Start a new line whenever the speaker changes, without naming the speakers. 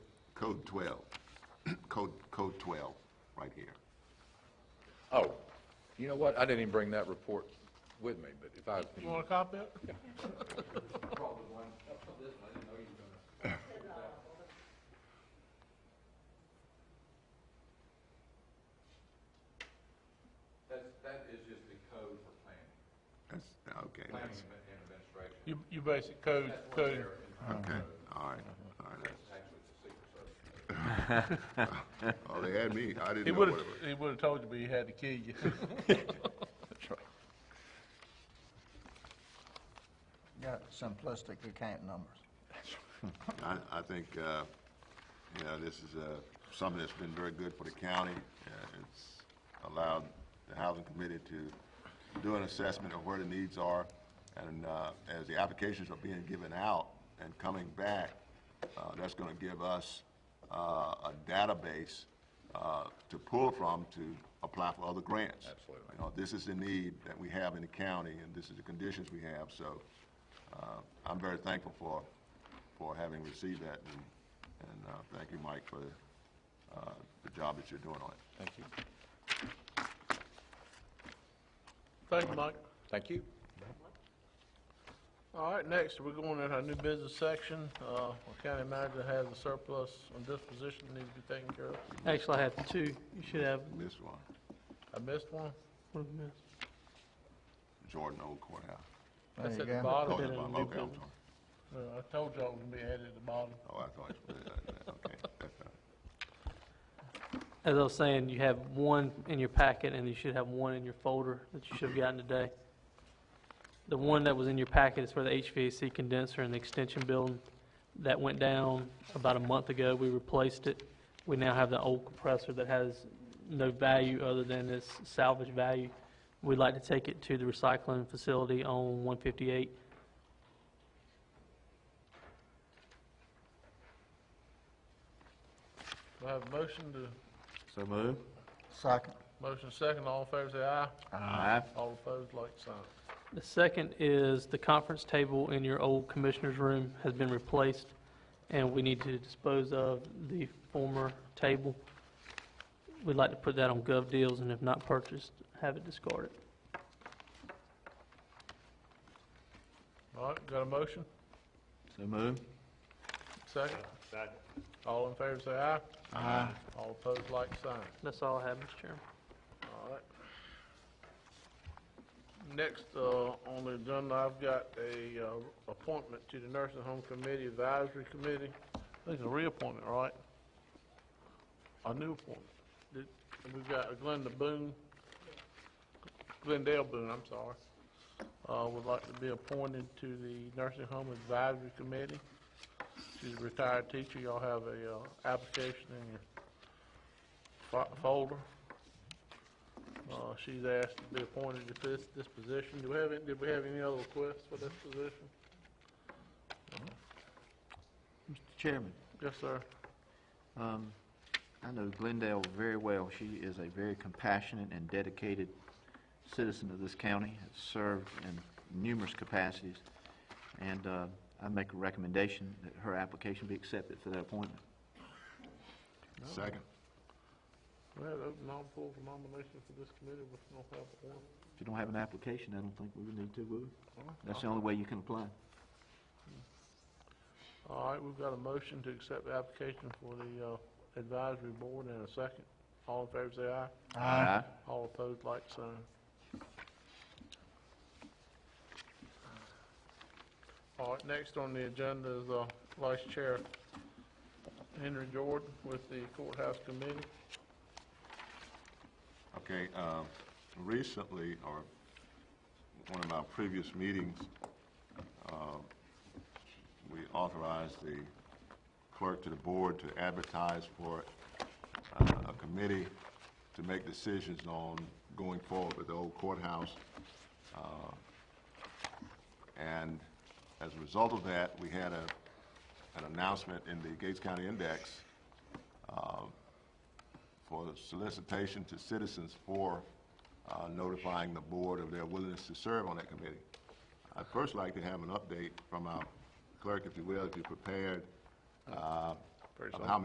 Code 12, code, code 12, right here.
Oh, you know what? I didn't even bring that report with me, but if I,
You want a copy of it?
That's, that is just the code for planning,
That's, okay,
planning
that's,
and administration,
You, you basic code, code,
okay, all right, all right. that's-
actually it's a secret service.
Oh, they had me, I
he
didn't know what
would've,
it was.
he would've told you, but he had to kill you.
Got simplistic account numbers.
I, I think, uh, you know, this is, uh, something that's been very good for the county. Uh, It's allowed the housing committee to do an assessment of where the needs are. And, uh, as the applications are being given out and coming back, uh, that's gonna give us, uh, a database, uh, to pull from to apply for other grants.
Absolutely.
You know, this is the need that we have in the county, and this is the conditions we have, so, uh, I'm very thankful for, for having received that, and, and, uh, thank you, Mike, for, uh, the job that you're doing on it.
thank you.
Thank you, Mike.
Thank you.
All right, next, we're going in our new business section. Uh, our county manager has a surplus on disposition that needs to be taken care of.
Actually, I have two. You should have
This one,
I missed one.
one missed.
Jordan Old Courthouse.
That's
There
at
you
the
go.
Oh,
bottom.
that's
it
my
in
local,
Newcombe.
I'm sorry.
No, I told y'all it was gonna be added at the bottom.
Oh, I thought, you- uh, okay, that's not.
As I was saying, you have one in your packet, and you should have one in your folder that you should have gotten today. The one that was in your packet is for the HVAC condenser in the extension building. That went down about a month ago. We replaced it. We now have the old compressor that has no value other than its salvage value. We'd like to take it to the recycling facility on 158.
Do I have a motion to,
So move.
Second.
motion second, all in favor say aye.
Aye.
All opposed, like sign.
The second is the conference table in your old commissioner's room has been replaced, and we need to dispose of the former table. We'd like to put that on gov deals, and if not purchased, have it discarded.
All right, got a motion?
So move.
Second? All in favor say aye. Aye. All opposed, like sign.
That's all I have, Mr. Chairman.
All right. Next, uh, on the agenda, I've got a, uh, appointment to the Nursing Home Committee Advisory Committee. I think it's a reappointment, right? A new appointment. Did- and We've got Glenda Boone, Glendale Boone, I'm sorry, uh, would like to be appointed to the Nursing Home Advisory Committee. She's a retired teacher. Y'all have a, uh, application in your fo- folder. Uh, she's asked to be appointed to this, this position. Do we have, any- did we have any other requests for this position?
Mr. Chairman,
Yes, sir.
um, I know Glendale very well. She is a very compassionate and dedicated citizen of this county, has served in numerous capacities, and uh, I make a recommendation that her application be accepted for that appointment.
Second.
We had open all polls for nominations for this committee, but we don't have one.
If you don't have an application, I don't think we would need to, would we? That's the only way you can apply.
All right, we've got a motion to accept the application for the, uh, advisory board in a second. All in favor, say aye.
Aye.
All opposed, like sign. All right, next on the agenda is uh, Vice Chair Henry Jordan with the Courthouse Committee.
Okay, um, recently, or one of my previous meetings, um, we authorized the clerk to the board to advertise for uh, a committee to make decisions on going forward with the old courthouse. Uh, And as a result of that, we had a, an announcement in the Gates County Index for solicitation to citizens for uh, notifying the board of their willingness to serve on that committee. I'd first like to have an update from our clerk, if you will, if you're prepared, uh, of how